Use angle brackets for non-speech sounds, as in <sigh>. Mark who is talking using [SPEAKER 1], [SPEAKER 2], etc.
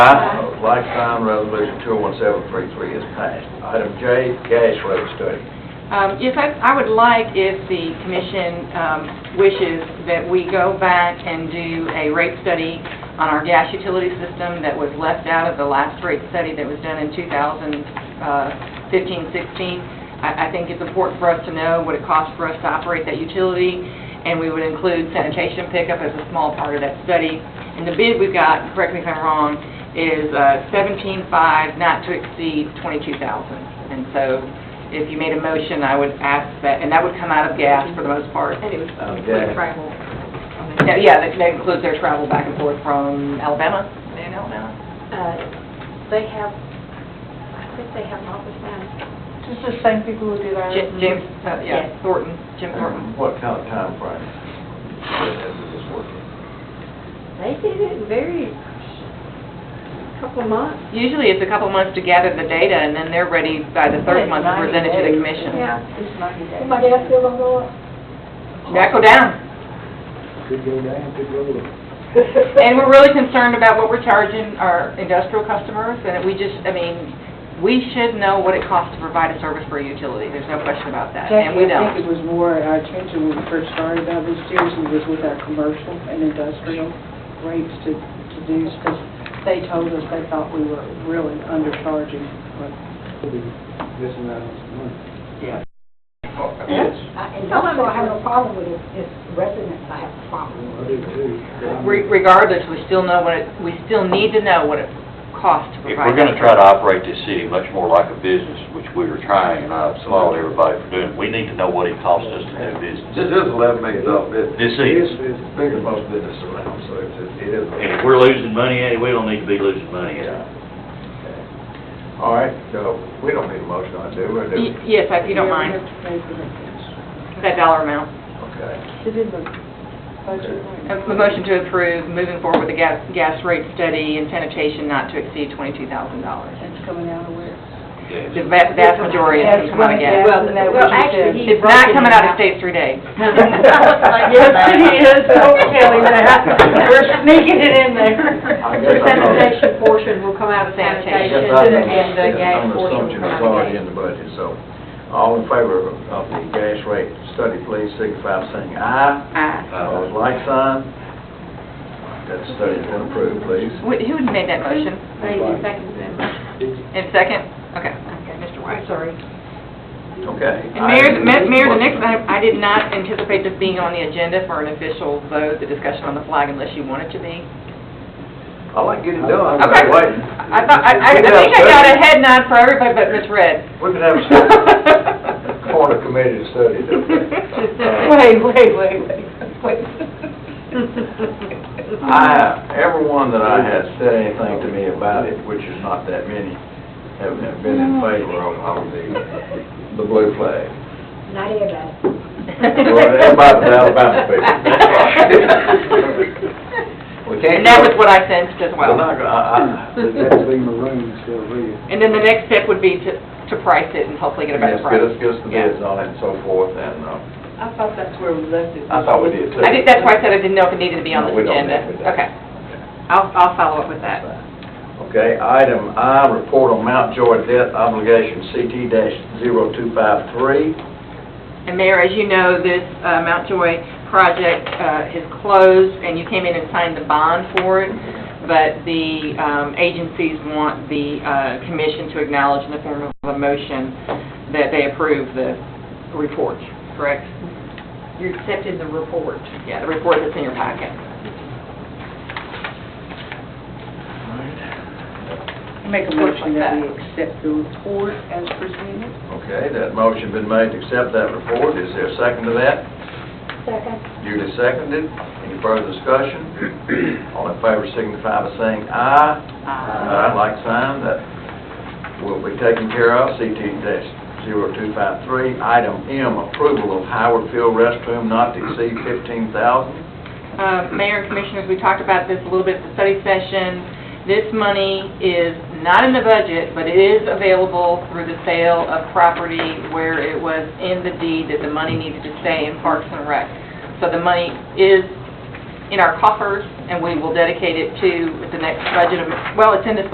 [SPEAKER 1] Aye. Lifetime Resolution 21733 is passed. Item J, cash flow study.
[SPEAKER 2] Um, Yes, I I would like, if the commission um, wishes, that we go back and do a rate study on our gas utility system that was left out of the last rate study that was done in 2015-16. I I think it's important for us to know what it costs for us to operate that utility, and we would include sanitation pickup as a small part of that study. And the bid we've got, correct me if I'm wrong, is uh, 17.5, not to exceed 22,000. And so if you made a motion, I would ask that, and that would come out of gas for the most part.
[SPEAKER 3] And it was
[SPEAKER 1] Okay.
[SPEAKER 3] include travel.
[SPEAKER 2] Yeah, Yeah, that that includes their travel back and forth from Alabama, in Alabama.
[SPEAKER 3] Uh, They have, I think they have an office now.
[SPEAKER 4] This is the same people who did our.
[SPEAKER 2] Jim- James, uh, yeah,
[SPEAKER 3] Yes.
[SPEAKER 2] Thornton, Jim Thornton.
[SPEAKER 1] What kind of timeframe is this working?
[SPEAKER 3] They did it in very, couple of months.
[SPEAKER 2] Usually it's a couple months to gather the data, and then they're ready by the third month to present it to the commission.
[SPEAKER 3] Yeah.
[SPEAKER 4] It's ninety days.
[SPEAKER 5] My dad still don't go up.
[SPEAKER 2] That go down.
[SPEAKER 6] Could go down, could go up.
[SPEAKER 2] And we're really concerned about what we're charging our industrial customers, and we just, I mean, we should know what it costs to provide a service for a utility, there's no question about that, and we
[SPEAKER 7] Jackie, I
[SPEAKER 2] don't.
[SPEAKER 7] think it was more at our attention when we first started about this seriously was with our commercial and industrial rates to, to do, because they told us they thought we were really undercharging. but-
[SPEAKER 6] We'll be missing out on some money.
[SPEAKER 1] Yes.
[SPEAKER 5] I- And that's why I have a problem with it, it's residents I have a problem
[SPEAKER 6] I
[SPEAKER 5] with.
[SPEAKER 6] do too. but I'm-
[SPEAKER 2] Re- Regardless, we still know what it, we still need to know what it costs to
[SPEAKER 8] If
[SPEAKER 2] provide.
[SPEAKER 8] we're gonna try to operate this city much more like a business, which we were trying, and I applaud everybody for doing, it, we need to know what it costs us to do business.
[SPEAKER 1] This is eleven million dollar business.
[SPEAKER 8] This
[SPEAKER 6] This
[SPEAKER 8] is,
[SPEAKER 6] is,
[SPEAKER 1] It's bigger than most business around, so it's, it is. a-
[SPEAKER 8] and if we're losing money at it, we don't need to be losing money at it.
[SPEAKER 1] Yeah. Okay. All right, so we don't need a motion on it, do we? Do we?
[SPEAKER 2] Y- Yes, if you don't
[SPEAKER 7] We
[SPEAKER 2] mind,
[SPEAKER 7] have to pay for that.
[SPEAKER 2] that dollar amount.
[SPEAKER 1] Okay.
[SPEAKER 7] It's in the budget.
[SPEAKER 2] A a motion to approve, moving forward with the gas, gas rate study and sanitation not to exceed twenty-two thousand dollars.
[SPEAKER 7] It's coming out of where?
[SPEAKER 2] The vast, vast majority is gonna come out of gas.
[SPEAKER 4] Well, no,
[SPEAKER 3] Well,
[SPEAKER 4] what you
[SPEAKER 3] actually,
[SPEAKER 4] said.
[SPEAKER 3] he-
[SPEAKER 2] It's not coming out of state three <laughs> days.
[SPEAKER 4] Yes, it is, don't tell him that. We're sneaking it in there.
[SPEAKER 1] I guess I'm
[SPEAKER 3] The
[SPEAKER 1] not-
[SPEAKER 3] sanitation portion will come out of
[SPEAKER 1] I
[SPEAKER 3] sanitation,
[SPEAKER 1] guess
[SPEAKER 2] Sanitation.
[SPEAKER 1] I
[SPEAKER 3] and then
[SPEAKER 1] understand
[SPEAKER 3] the
[SPEAKER 1] that
[SPEAKER 3] gas
[SPEAKER 1] under
[SPEAKER 3] portion
[SPEAKER 1] assumption
[SPEAKER 3] will
[SPEAKER 1] it's
[SPEAKER 3] come out of
[SPEAKER 1] already in the budget, so. All in favor of of the gas rate study, please signify by saying aye.
[SPEAKER 2] Aye.
[SPEAKER 8] Uh,
[SPEAKER 1] Opposed, like sign. That study's been approved, please.
[SPEAKER 2] Wh- <laughs> Who made that motion?
[SPEAKER 3] gas. Maybe second then.
[SPEAKER 2] And second? Okay, Mr. White.
[SPEAKER 3] I'm sorry.
[SPEAKER 1] Okay.
[SPEAKER 2] And Mayor, Ma- Mayor, the next item, I did not anticipate this being on the agenda for an official vote, the discussion on the flag, unless you want it to be.
[SPEAKER 1] I like getting done, I'm
[SPEAKER 2] Okay.
[SPEAKER 1] not waiting.
[SPEAKER 2] I thought, I, I I think I got a head nod for everybody but Ms. Red.
[SPEAKER 1] We can have a study, corner committee to study that.
[SPEAKER 4] Wait, wait, wait, wait, wait.
[SPEAKER 1] I, everyone that I had said anything to me about it, which is not that many, have have been in favor of, of the, the blue flag.
[SPEAKER 5] Not everybody.
[SPEAKER 1] Well, everybody's an Alabama people. We can't.
[SPEAKER 2] And that was what I sensed as
[SPEAKER 1] Well,
[SPEAKER 2] well.
[SPEAKER 1] not, gonna- I, I.
[SPEAKER 6] That would be maroon, so red.
[SPEAKER 2] And then the next step would be to, to price it and hopefully get a
[SPEAKER 1] Yes,
[SPEAKER 2] better price.
[SPEAKER 1] Get us, get us the
[SPEAKER 2] Yeah.
[SPEAKER 1] bids on it and so forth, and, uh,
[SPEAKER 7] I thought that's where we left it.
[SPEAKER 1] I thought we did too.
[SPEAKER 2] I think that's why I said I didn't know if it needed to be
[SPEAKER 1] No,
[SPEAKER 2] on
[SPEAKER 1] we
[SPEAKER 2] this
[SPEAKER 1] don't
[SPEAKER 2] agenda.
[SPEAKER 1] need it.
[SPEAKER 2] Okay. I'll, I'll follow up with that.
[SPEAKER 1] Okay, item I, report on Mount Joy debt obligation CT dash zero two five three.
[SPEAKER 2] And Mayor, as you know, this uh, Mount Joy project uh, is closed, and you came in and signed the bond for it, but the um, agencies want the uh, commission to acknowledge in the form of a motion that they approve the report, correct?
[SPEAKER 3] You accepted the report.
[SPEAKER 2] Yeah, the report that's in your packet.
[SPEAKER 7] Make a
[SPEAKER 2] Looks like
[SPEAKER 7] motion that
[SPEAKER 2] that.
[SPEAKER 7] we accept the report as presented.
[SPEAKER 1] Okay, that motion been made to accept that report. Is there a second to that?
[SPEAKER 5] Second.
[SPEAKER 1] Duly seconded. Any further discussion? All in favor signify by saying aye. Aye, like sign, that will be taken care of, CT dash zero two five three. Item M, approval of Howard Field restroom not to exceed fifteen thousand.
[SPEAKER 2] Uh, Mayor and Commissioners, we talked about this a little bit at the study session. This money is not in the budget, but it is available through the sale of property where it was in the deed that the money needed to stay in Parks and Rec. So the money is in our coffers, and we will dedicate it to the next budget, am- well, it's in this